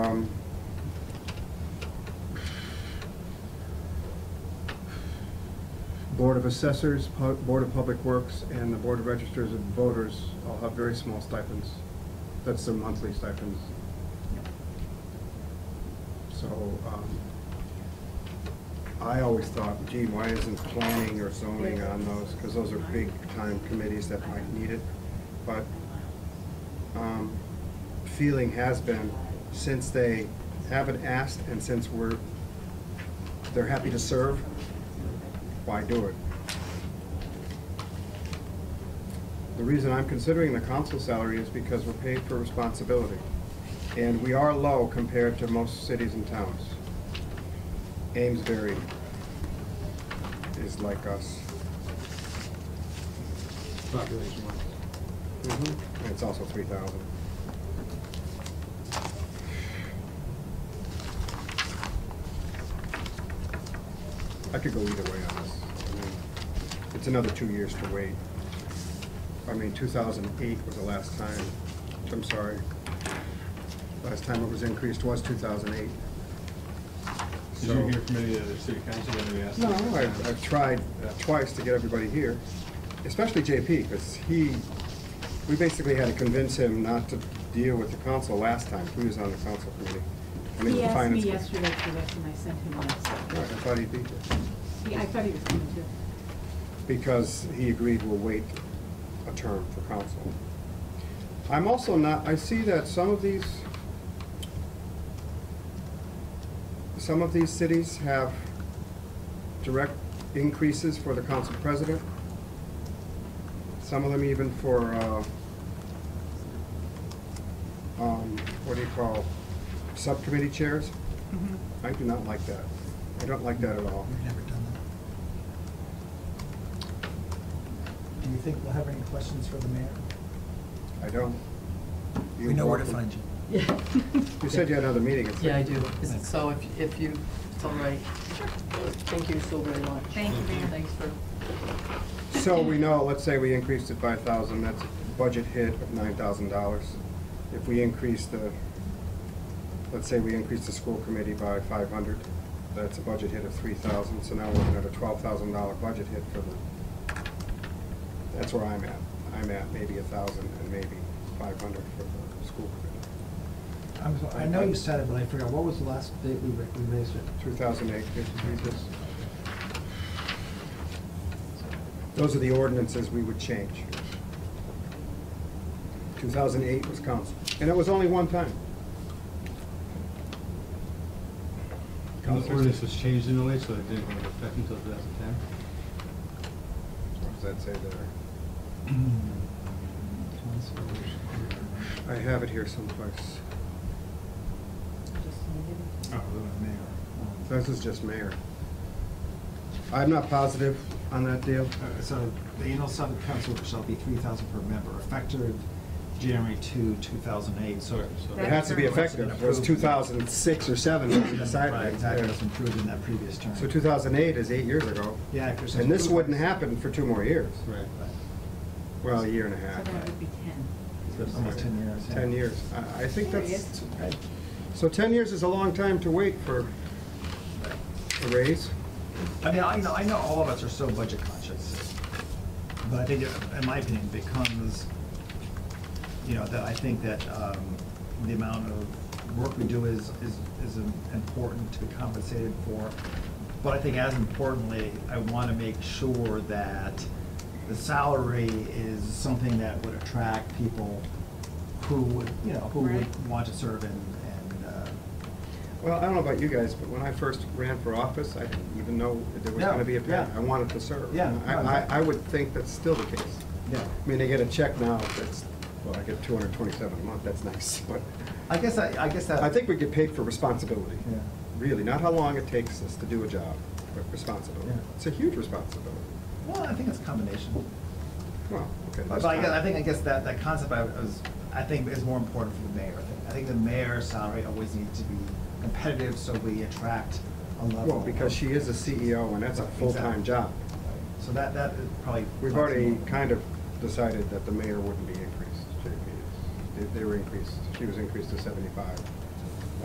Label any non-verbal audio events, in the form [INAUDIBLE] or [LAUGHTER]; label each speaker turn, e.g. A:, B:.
A: Um, Board of Assessors, Pu- Board of Public Works, and the Board of Registers of Voters all have very small stipends. That's their monthly stipends. So, um, I always thought, gee, why isn't planning or zoning on those? Because those are big-time committees that might need it. But um, feeling has been, since they haven't asked and since we're, they're happy to serve, why do it? The reason I'm considering the council salary is because we're paid for responsibility. And we are low compared to most cities and towns. Amesbury is like us.
B: population wise.
A: Mm-hmm. And it's also three thousand. I could go either way on this. I mean, It's another two years to wait. I mean, two thousand eight was the last time, I'm sorry. Last time it was increased was two thousand eight.
B: Did you hear from any of the city council when we asked?
A: No,
B: them?
A: I've, I've tried uh, twice to get everybody here, especially JP, because he, we basically had to convince him not to deal with the council last time, he was on the council committee. I mean,
C: He
A: the
C: asked me
A: finance
C: yesterday for this, and I sent him
A: committee. Right, I
C: this.
A: thought he'd be here,
C: He- I thought he was coming too.
A: because he agreed we'll wait a term for council. I'm also not, I see that some of these, some of these cities have direct increases for the council president. Some of them even for, uh, um, what do you call, subcommittee chairs. I do not like that. I don't like that at all.
D: We've never done that. Do you think we'll have any questions for the mayor?
A: I don't. You're
D: We know where to
A: welcome.
D: find you.
A: You said you had another meeting. at
E: Yeah, I
A: six.
E: do. Is it- So if, if you, it's all right. Thank you so very much.
F: Thank you, Mayor.
E: Thanks for,
A: So we know, let's say we increased it by a thousand, that's a budget hit of nine thousand dollars. If we increase the, let's say we increase the school committee by five hundred, that's a budget hit of three thousand, so now we're looking at a twelve thousand dollar budget hit for the, that's where I'm at. I'm at maybe a thousand and maybe five hundred for the school committee.
D: I'm so- I know you said it, but I forgot, what was the last date we ra- we raised it?
A: Two thousand eight, this. Those are the ordinances we would change. 2008 was council, and it was only one time.
B: And the ordinance was changed in a way so it didn't go into effect until 2010.
A: What does that say there? I have it here someplace.
B: Oh, the mayor.
A: This is just mayor. I'm not positive on that deal.
G: Uh, So the annual sum of council shall be three thousand per member, effective January two, two thousand eight, so.
B: So-
A: It has to be effective, it was 2006 or 7 when we decided.
G: Right, exactly, it was improved in that previous term.
A: So 2008 is eight years ago.
G: Yeah. if there's-
A: And this wouldn't happen for two more years.
B: Right.
A: Well, a year and a
C: So
A: half.
C: that would be ten.
G: Almost ten years. yeah.
A: 10 years. I, I think
C: There
A: that's,
G: Right.
A: so 10 years is a long time to wait for a raise.
G: I mean, I know, I know all of us are so budget conscious, but I think, it- in my opinion, becomes, you know, that I think that um, the amount of work we do is, is, is im- important to be compensated for. But I think as importantly, I want to make sure that the salary is something that would attract people who would, you know, who
C: Right.
G: would want to serve and, and, uh,
A: Well, I don't know about you guys, but when I first ran for office, I didn't even know that there was
G: Yeah,
A: gonna be a pay.
G: yeah.
A: I wanted to serve.
G: Yeah,
A: And I, I, I would think that's still the case.
G: yeah.
A: I mean, I get a check now that's, well, I get 227 a month, that's nice, [LAUGHS] but
G: I guess, I, I guess that.
A: I think we get paid for responsibility.
G: Yeah.
A: Really, not how long it takes us to do a job, but responsibility.
G: Yeah.
A: It's a huge responsibility.
G: Well, I think it's a combination.
A: Well, okay.
G: But
A: that's
G: I guess,
A: fine.
G: I think, I guess that, that concept I was, I think is more important for the mayor. I think- I think the mayor's salary always needs to be competitive so we attract a level.
A: Well, because she is E a CEO and that's a full-time
G: Exactly.
A: job.
G: So that, that is probably.
A: We've already kind of decided that the mayor wouldn't be increased, JP. They- They were increased, she was increased to seventy-five.